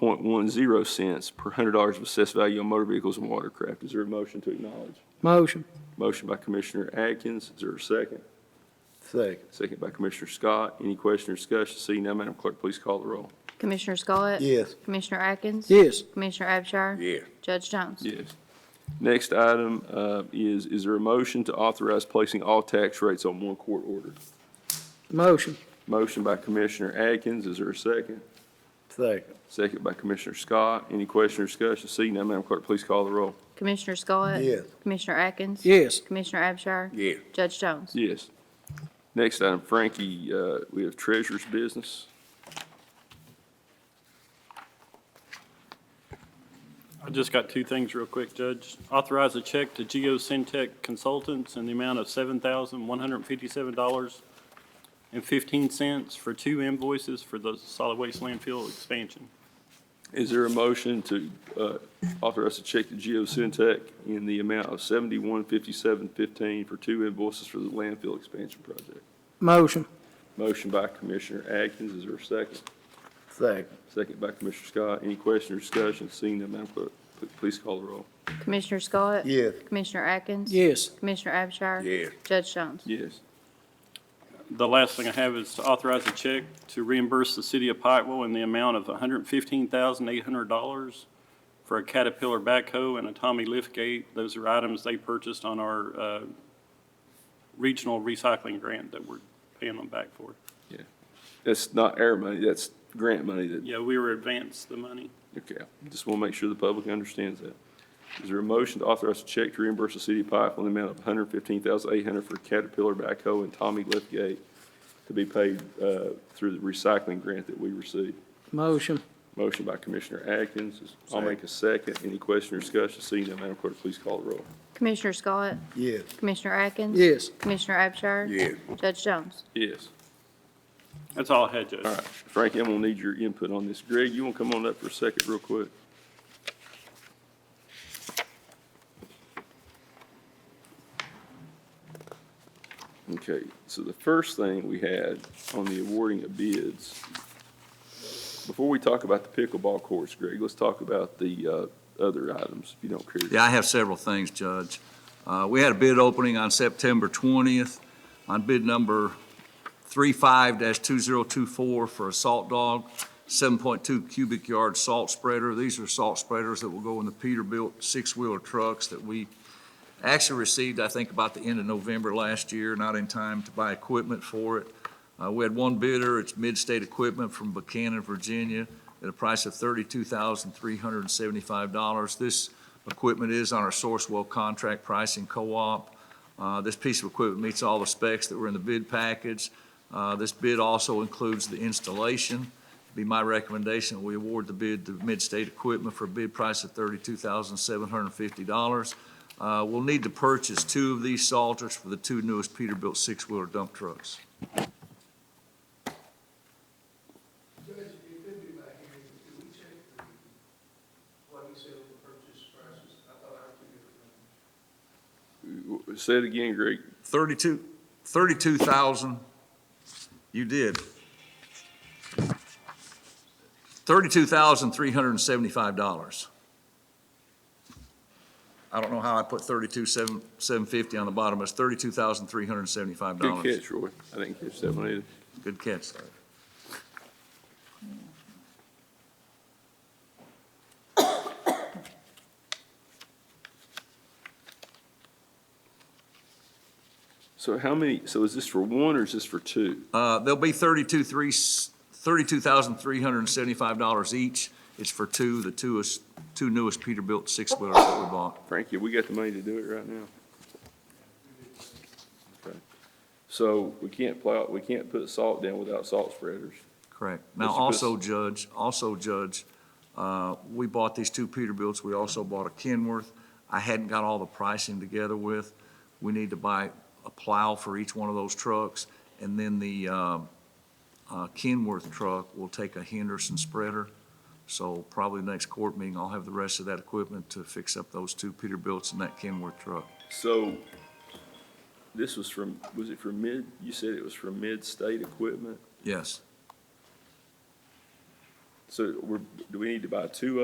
0.10 cents per hundred dollars of assessed value on motor vehicles and watercraft. Is there a motion to acknowledge? Motion. Motion by Commissioner Atkins, is there a second? Second. Second by Commissioner Scott. Any question or discussion? Seeing none, Madam Clerk, please call the roll. Commissioner Scott? Yes. Commissioner Atkins? Yes. Commissioner Abshire? Yes. Judge Jones? Yes. Next item uh, is, is there a motion to authorize placing all tax rates on one court order? Motion. Motion by Commissioner Atkins, is there a second? Second. Second by Commissioner Scott. Any question or discussion? Seeing none, Madam Clerk, please call the roll. Commissioner Scott? Yes. Commissioner Atkins? Yes. Commissioner Abshire? Yes. Judge Jones? Yes. Next item, Frankie, uh, we have treasurer's business. I just got two things real quick, Judge. Authorize a check to Geo Syntech Consultants in the amount of seven thousand one hundred and fifty-seven dollars and fifteen cents for two invoices for the solid waste landfill expansion. Is there a motion to uh, authorize a check to Geo Syntech in the amount of seventy-one fifty-seven fifteen for two invoices for the landfill expansion project? Motion. Motion by Commissioner Atkins, is there a second? Second. Second by Commissioner Scott. Any question or discussion? Seeing none, Madam Clerk, pl- please call the roll. Commissioner Scott? Yes. Commissioner Atkins? Yes. Commissioner Abshire? Yes. Judge Jones? Yes. The last thing I have is to authorize a check to reimburse the city of Pikeville in the amount of hundred and fifteen thousand eight hundred dollars for a Caterpillar backhoe and a Tommy liftgate. Those are items they purchased on our, uh, regional recycling grant that we're paying them back for. That's not air money, that's grant money that, Yeah, we were advanced the money. okay. Just want to make sure the public understands that. Is there a motion to authorize a check to reimburse the city of Pikeville in the amount of one hundred fifteen thousand eight hundred for Caterpillar backhoe and Tommy Lithgate to be paid uh, through the recycling grant that we received? Motion. Motion by Commissioner Atkins. I'll make a second. Any question or discussion? Seeing none, Madam Clerk, please call the roll. Commissioner Scott? Yes. Commissioner Atkins? Yes. Commissioner Abshire? Yes. Judge Jones? Yes. That's all I had, Judge. All right, Frankie, I'm gonna need your input on this. Greg, you wanna come on up for a second real quick? Okay, so the first thing we had on the awarding of bids, before we talk about the pickleball courts, Greg, let's talk about the, uh, other items, if you don't care. Yeah, I have several things, Judge. Uh, We had a bid opening on September 20th on bid number 35-2024 for a salt dog, 7.2 cubic yard salt spreader. These are salt spreaders that will go in the Peterbilt six-wheeler trucks that we actually received, I think, about the end of November last year, not in time to buy equipment for it. Uh, We had one bidder, it's Midstate Equipment from Buchanan, Virginia, at a price of $32,375. This equipment is on our Sourcewell contract pricing co-op. Uh, This piece of equipment meets all the specs that were in the bid package. Uh, This bid also includes the installation. Be my recommendation, that we award the bid to Midstate Equipment for a bid price of $32,750. Uh, We'll need to purchase two of these salters for the two newest Peterbilt six-wheeler dump trucks. Judge, if you could do my hearing, could we check the, what he said the purchase prices? I thought I took it from. Say it again, Greg. 32, 32,000, you did. $32,375. I don't know how I put 32,750 on the bottom, but it's Good $32,375. catch, Roy. I didn't catch that one either. Good catch. So how many, so is this for one or is this for two? Uh, They'll be 32, three, $32,375 each. It's for two, the two is, two newest Peterbilt six-wheelers that we bought. Frankie, we got the money to do it right now. Okay. So we can't plow, we can't put salt down without salt spreaders. Correct. Now, Mr. also, Judge, also, Judge, uh, we bought these two Peterbilts. We also bought a Kenworth. I hadn't got all the pricing together with. We need to buy a plow for each one of those trucks, and then the uh, uh, Kenworth truck will take a Henderson spreader. So probably next court meeting, I'll have the rest of that equipment to fix up those two Peterbilts and that Kenworth truck. So this was from, was it from mid, you said it was from mid-state equipment? Yes. So we're, do we need to buy two